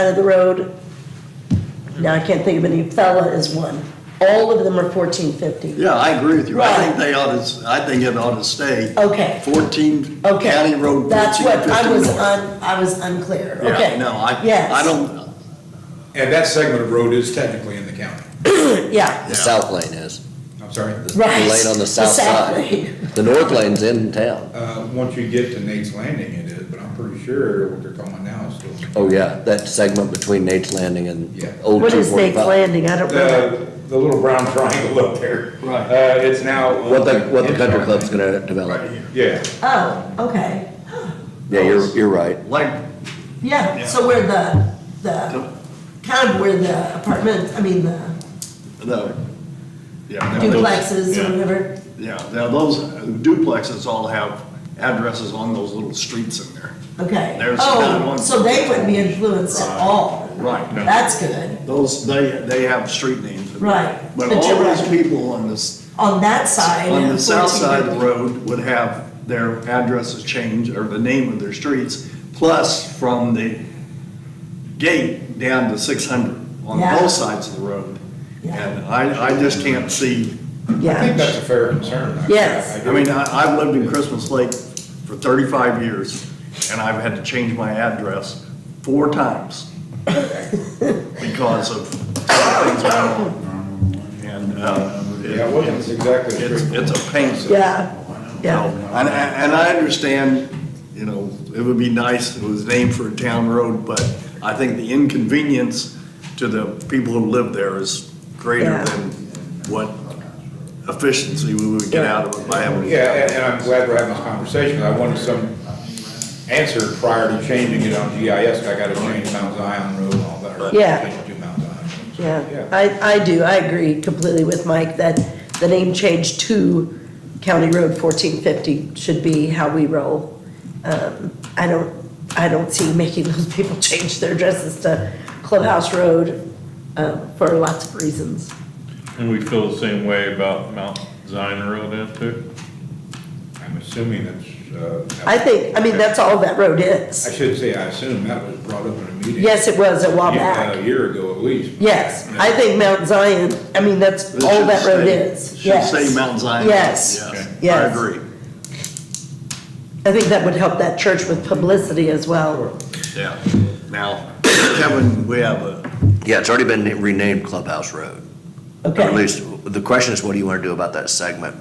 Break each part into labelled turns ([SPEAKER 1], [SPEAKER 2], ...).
[SPEAKER 1] side of the road. Now, I can't think of any, Fella is one. All of them are fourteen fifty.
[SPEAKER 2] Yeah, I agree with you. I
[SPEAKER 1] Right.
[SPEAKER 2] think they ought to, I think it ought to stay
[SPEAKER 1] Okay,
[SPEAKER 2] fourteen,
[SPEAKER 1] okay.
[SPEAKER 2] County Road
[SPEAKER 1] That's
[SPEAKER 2] fourteen
[SPEAKER 1] what, I
[SPEAKER 2] fifteen
[SPEAKER 1] was
[SPEAKER 2] north.
[SPEAKER 1] un, I was unclear,
[SPEAKER 2] Yeah,
[SPEAKER 1] okay.
[SPEAKER 2] No, I,
[SPEAKER 1] Yes.
[SPEAKER 2] I don't,
[SPEAKER 3] And that segment of road is technically in the county.
[SPEAKER 1] Yeah,
[SPEAKER 2] Yeah.
[SPEAKER 4] The south lane is.
[SPEAKER 3] I'm sorry.
[SPEAKER 4] The-
[SPEAKER 1] Right.
[SPEAKER 4] The lane on
[SPEAKER 1] The
[SPEAKER 4] the south
[SPEAKER 1] south
[SPEAKER 4] side.
[SPEAKER 1] lane.
[SPEAKER 4] The north lane's in town.
[SPEAKER 3] Uh, once you get to Nate's Landing it is, but I'm pretty sure what they're calling now is still.
[SPEAKER 4] Oh, yeah, that segment between Nate's Landing and
[SPEAKER 3] Yeah.
[SPEAKER 4] Old
[SPEAKER 1] what is Nate's
[SPEAKER 4] 245.
[SPEAKER 1] Landing? I
[SPEAKER 2] Uh,
[SPEAKER 1] don't know.
[SPEAKER 3] The, the little brown triangle up there.
[SPEAKER 2] Right.
[SPEAKER 3] Uh, it's now.
[SPEAKER 4] What the, what the country club's gonna develop.
[SPEAKER 3] Yeah,
[SPEAKER 1] Oh, okay,
[SPEAKER 4] Yeah, you're, you're right.
[SPEAKER 2] like,
[SPEAKER 1] yeah, so where the, the, kind of where the apartment, I mean, the
[SPEAKER 2] no. Yeah. no, those-
[SPEAKER 1] Uh, duplexes
[SPEAKER 2] yeah.
[SPEAKER 1] or whatever.
[SPEAKER 2] Yeah, now those duplexes all have addresses on those little streets in there.
[SPEAKER 1] Okay.
[SPEAKER 2] There's another
[SPEAKER 1] Oh,
[SPEAKER 2] one.
[SPEAKER 1] so they wouldn't be influenced at all.
[SPEAKER 2] Right. No.
[SPEAKER 1] That's good.
[SPEAKER 2] Those, they, they have street names. in there.
[SPEAKER 1] Right,
[SPEAKER 2] But
[SPEAKER 1] but
[SPEAKER 2] all
[SPEAKER 1] you're
[SPEAKER 2] those
[SPEAKER 1] right.
[SPEAKER 2] people on this,
[SPEAKER 1] On that side.
[SPEAKER 2] on the south side of the
[SPEAKER 1] 1450.
[SPEAKER 2] road would have their addresses changed or the name of their streets, plus from the gate down to six hundred on
[SPEAKER 1] Yeah.
[SPEAKER 2] both sides of the road.
[SPEAKER 1] Yeah.
[SPEAKER 2] And I, I just can't see,
[SPEAKER 3] I think
[SPEAKER 1] Yeah,
[SPEAKER 3] that's a fair concern. I-
[SPEAKER 1] Yes.
[SPEAKER 2] I mean, I, I've lived in Christmas Lake for thirty-five years and I've had to change my address four times because of things going on. And, uh, it-
[SPEAKER 3] Yeah, it wasn't exactly.
[SPEAKER 2] it's, it's a pain.
[SPEAKER 1] yeah, yeah,
[SPEAKER 2] And, and I understand, you know, it would be nice if it was named for a town road, but I think the inconvenience to the people who live there is
[SPEAKER 1] Yeah.
[SPEAKER 2] greater than what efficiency we would get out of it by having.
[SPEAKER 3] Yeah, and, and I'm glad we're having this conversation. I wanted some answer prior to changing it on GIS. I gotta change Mount Zion Road and all that. or
[SPEAKER 1] Yeah.
[SPEAKER 3] change it to Mount Zion.
[SPEAKER 1] yeah. I, I do, I agree completely with Mike that the name change to County Road fourteen fifty should be how we roll. Um, I don't, I don't see making those people change their addresses to Clubhouse Road, uh, for lots of reasons.
[SPEAKER 5] And we feel the same way about Mount Zion Road then too?
[SPEAKER 3] I'm assuming it's, uh. that-
[SPEAKER 1] I think, I mean, that's all that road is.
[SPEAKER 3] I should say, I assume that was brought up in a meeting.
[SPEAKER 1] Yes, it was a while
[SPEAKER 3] Yeah,
[SPEAKER 1] back.
[SPEAKER 3] A year ago at least.
[SPEAKER 1] Yes, I think Mount Zion, I mean, that's
[SPEAKER 2] It
[SPEAKER 1] all
[SPEAKER 2] should
[SPEAKER 1] that road
[SPEAKER 2] stay-
[SPEAKER 1] is.
[SPEAKER 2] Should
[SPEAKER 1] Yes.
[SPEAKER 2] say Mount Zion.
[SPEAKER 1] Yes,
[SPEAKER 2] I
[SPEAKER 1] yes.
[SPEAKER 2] agree,
[SPEAKER 1] I think that would help that church with publicity as well.
[SPEAKER 2] yeah. Now, Kevin, we have a,
[SPEAKER 4] Yeah, it's already been renamed Clubhouse Road. Or at
[SPEAKER 1] Okay,
[SPEAKER 4] least, the question is, what do you want to do about that segment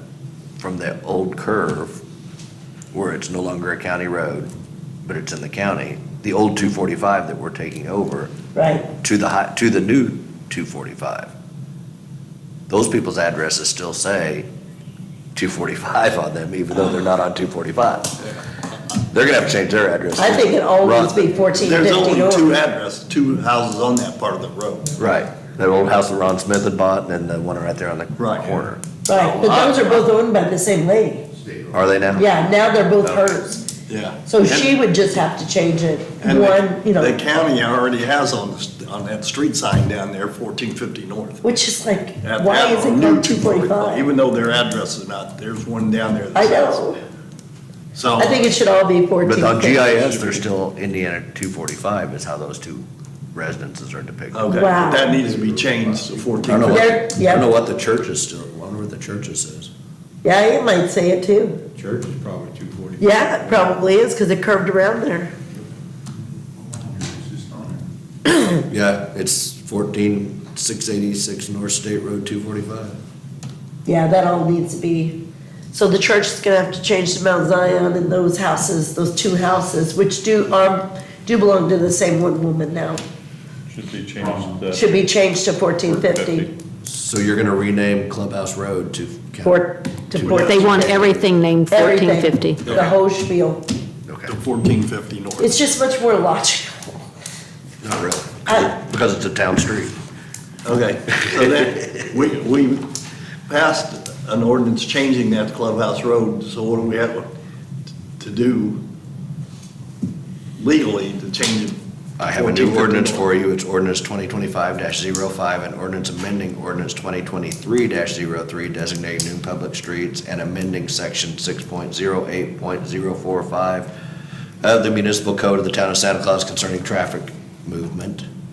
[SPEAKER 4] from the old curve where it's no longer a county road, but it's in the county? The old 245 that we're taking over
[SPEAKER 1] right,
[SPEAKER 4] to the high, to the new 245. Those people's addresses still say 245 on them, even though they're not on 245. They're gonna have to change their address.
[SPEAKER 1] I think it always be fourteen
[SPEAKER 2] there's
[SPEAKER 1] fifty
[SPEAKER 2] only two
[SPEAKER 1] or,
[SPEAKER 2] addresses, two houses on that part of the road.
[SPEAKER 4] Right, that old house that Ron Smith had bought, and then the one right there on the
[SPEAKER 2] Right.
[SPEAKER 4] corner.
[SPEAKER 1] right, but those are both owned by the same lady.
[SPEAKER 4] Are they now?
[SPEAKER 1] Yeah, now they're both hers.
[SPEAKER 2] Yeah.
[SPEAKER 1] So
[SPEAKER 2] And-
[SPEAKER 1] she would just have to change it,
[SPEAKER 2] And the-
[SPEAKER 1] one, you
[SPEAKER 2] The
[SPEAKER 1] know,
[SPEAKER 2] county already has on, the- on that street sign down there, fourteen fifty north.
[SPEAKER 1] which is like,
[SPEAKER 2] At-
[SPEAKER 1] why
[SPEAKER 2] at
[SPEAKER 1] is it
[SPEAKER 2] new
[SPEAKER 1] called two
[SPEAKER 2] 245,
[SPEAKER 1] forty-five?
[SPEAKER 2] Even though their address is not, there's one down there that
[SPEAKER 1] I
[SPEAKER 2] says.
[SPEAKER 1] know.
[SPEAKER 2] So,
[SPEAKER 1] I think it should all be fourteen
[SPEAKER 4] But
[SPEAKER 1] fifty.
[SPEAKER 4] on GIS, they're still Indiana 245 is how those two residences are depicted. I
[SPEAKER 2] okay,
[SPEAKER 1] Wow.
[SPEAKER 2] that needs to be changed to
[SPEAKER 4] don't
[SPEAKER 2] fourteen
[SPEAKER 4] know what,
[SPEAKER 2] fifty.
[SPEAKER 1] They're-
[SPEAKER 4] I
[SPEAKER 1] yeah.
[SPEAKER 4] don't know what the church is still, I wonder what the churches is.
[SPEAKER 1] Yeah, it might say it too.
[SPEAKER 3] Church is probably two forty.
[SPEAKER 1] Yeah, it probably is, because it curved around there.
[SPEAKER 4] Yeah, it's 14686 North State Road 245.
[SPEAKER 1] Yeah, that all needs to be, so the church is gonna have to change to Mount Zion and those houses, those two houses, which do, um, do belong to the same one woman now,
[SPEAKER 5] Should be changed to.
[SPEAKER 1] should be changed to fourteen fifty.
[SPEAKER 4] So you're gonna rename Clubhouse Road to.
[SPEAKER 1] Four, to
[SPEAKER 4] They
[SPEAKER 1] fourteen.
[SPEAKER 6] They want everything named
[SPEAKER 1] Everything.
[SPEAKER 6] fourteen fifty.
[SPEAKER 1] The whole spiel.
[SPEAKER 2] To fourteen fifty north.
[SPEAKER 1] It's just much more logical.
[SPEAKER 4] Not really,
[SPEAKER 1] I-
[SPEAKER 4] because it's a town street.
[SPEAKER 2] Okay, so that, we, we passed an ordinance changing that to Clubhouse Road, so what do we have to do legally to change it?
[SPEAKER 4] I have a new
[SPEAKER 2] 1450
[SPEAKER 4] ordinance
[SPEAKER 2] north?
[SPEAKER 4] for you, it's ordinance 2025-05, an ordinance amending ordinance 2023-03 designating new public streets and amending section 6.08.045 of the municipal code of the town of Santa Claus concerning traffic movement.